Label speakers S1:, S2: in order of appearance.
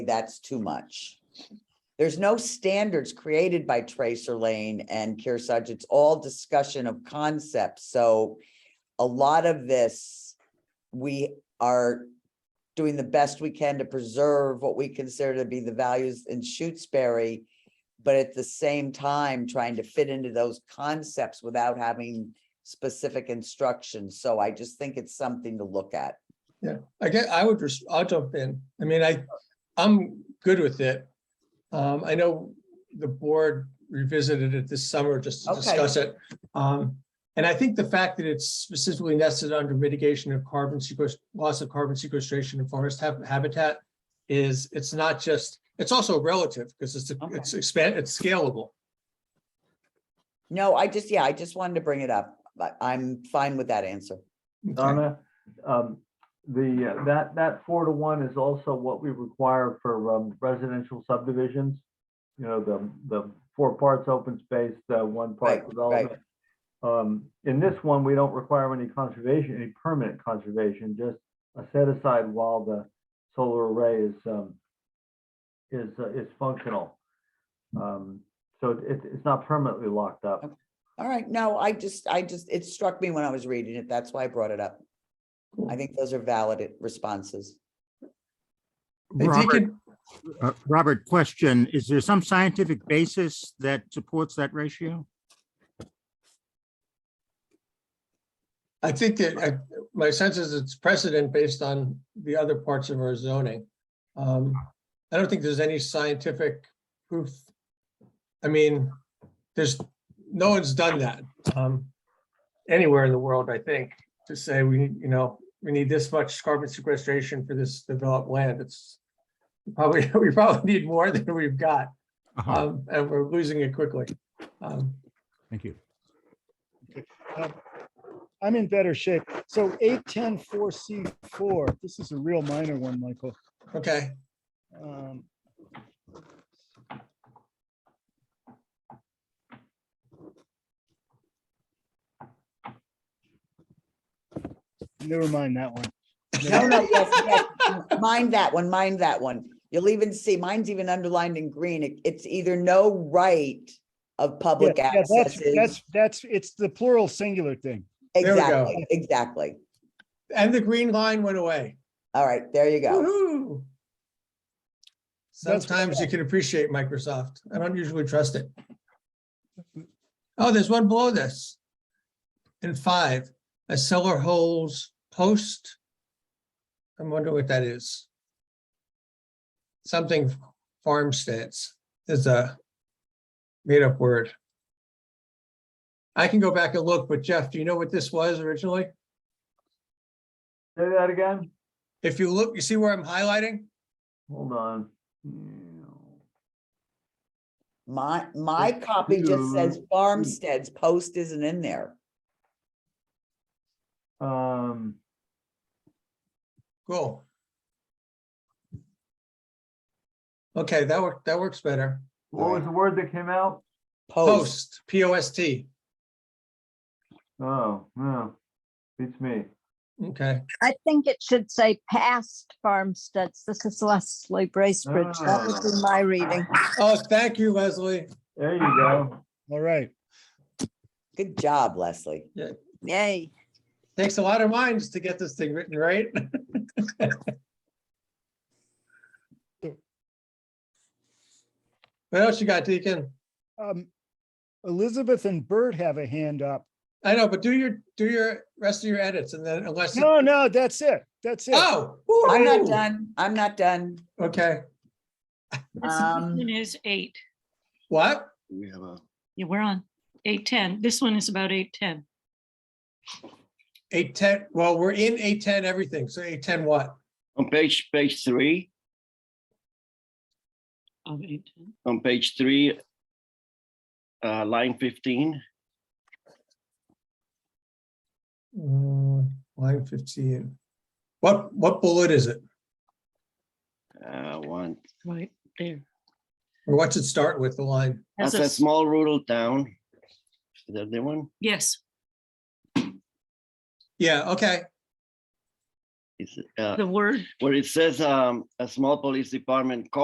S1: that's too much. There's no standards created by Tracer Lane and Kearsarge. It's all discussion of concepts. So a lot of this, we are doing the best we can to preserve what we consider to be the values in Shutesbury, but at the same time, trying to fit into those concepts without having specific instructions. So I just think it's something to look at.
S2: I guess I would, res- I'll jump in. I mean, I, I'm good with it. Um, I know the board revisited it this summer just to
S1: Okay.
S2: discuss it. Um, and I think the fact that it's specifically nested under mitigation of carbon sequest, loss of carbon sequestration in forest hab- habitat is, it's not just, it's also relative because it's,
S1: Okay.
S2: it's expand, it's scalable.
S1: No, I just, yeah, I just wanted to bring it up, but I'm fine with that answer.
S2: Okay.
S3: Donna, um, the, uh, that, that four to one is also what we require for um, residential subdivisions. You know, the, the four parts open space, the one
S1: Right,
S3: part
S1: right.
S3: development. Um, in this one, we don't require any conservation, any permanent conservation, just a set aside while the solar array is, um, is, uh, is functional. Um, so it, it's not permanently locked up.
S1: All right, no, I just, I just, it struck me when I was reading it. That's why I brought it up. I think those are valid responses.
S2: If you
S4: Robert,
S2: could,
S4: uh, Robert, question, is there some scientific basis that supports that ratio?
S2: I think that, I, my sense is it's precedent based on the other parts of our zoning. Um, I don't think there's any scientific proof. I mean, there's, no one's done that, um, anywhere in the world, I think, to say we, need, you know, we need this much carbon sequestration for this developed land. It's probably, we probably need more than we've got,
S4: Uh-huh,
S2: um, and we're losing it quickly. Um,
S4: Thank you.
S5: I'm in better shape. So eight, ten, four, C, four, this is a real minor one, Michael.
S2: okay.
S5: Um, Never mind that one.
S1: No, no, yes, yes, m- mind that one, mind that one. You'll even see, mine's even underlined in green. It- It's either no right of
S5: Yeah,
S1: public
S5: yeah,
S1: access.
S5: That's,
S1: is-
S5: that's, that's, it's the plural singular thing.
S2: There we go.
S1: Exactly, exactly.
S2: And the green line went away.
S1: All right, there you go.
S2: Woo-hoo.
S5: That's what I
S2: Sometimes you can appreciate Microsoft. I don't usually trust it. Oh, there's one below this. In five, a seller holds post. I'm wondering what that is. Something farm stance is a made up word. I can go back and look, but Jeff, do you know what this was originally?
S3: Say that again?
S2: If you look, you see where I'm highlighting?
S3: Hold on. Yeah.
S1: My, my copy just says farmsteads, post isn't in there.
S3: Um,
S2: Cool. Okay, that worked, that works better.
S3: what was the word that came out?
S1: Post,
S2: Post, P O S T.
S3: Oh, no, beats me.
S2: Okay,
S6: I think it should say past farmsteads. This is Leslie Bracebridge. That would be my reading.
S2: oh, thank you, Leslie.
S3: There you go.
S5: All right.
S1: good job, Leslie.
S6: Yay.
S2: Takes a lot of minds to get this thing written right. What else you got, Deacon?
S5: Um, Elizabeth and Bert have a hand up.
S2: I know, but do your, do your, rest of your edits and then unless.
S5: No, no, that's it. That's it.
S2: Oh.
S1: I'm not
S2: woo-hoo.
S1: done, I'm not done.
S2: Okay,
S7: This
S1: Um,
S7: one is eight.
S2: what?
S8: We have a,
S7: Yeah, we're on eight ten. This one is about eight ten.
S2: Eight ten, well, we're in eight ten everything, so eight ten what?
S8: on page, page three,
S7: Of Oh, eight ten.
S8: on page three, uh, line fifteen,
S2: Mm, Line fifteen. What, what bullet is it?
S8: uh, one,
S7: Right there.
S2: Or what's it start with, the line?
S7: Has
S8: that's
S7: a
S8: a
S7: s-
S8: small rural town. Is that the one?
S7: Yes,
S2: Yeah, okay.
S8: It's, uh,
S7: the word
S8: where it says, um, a small police department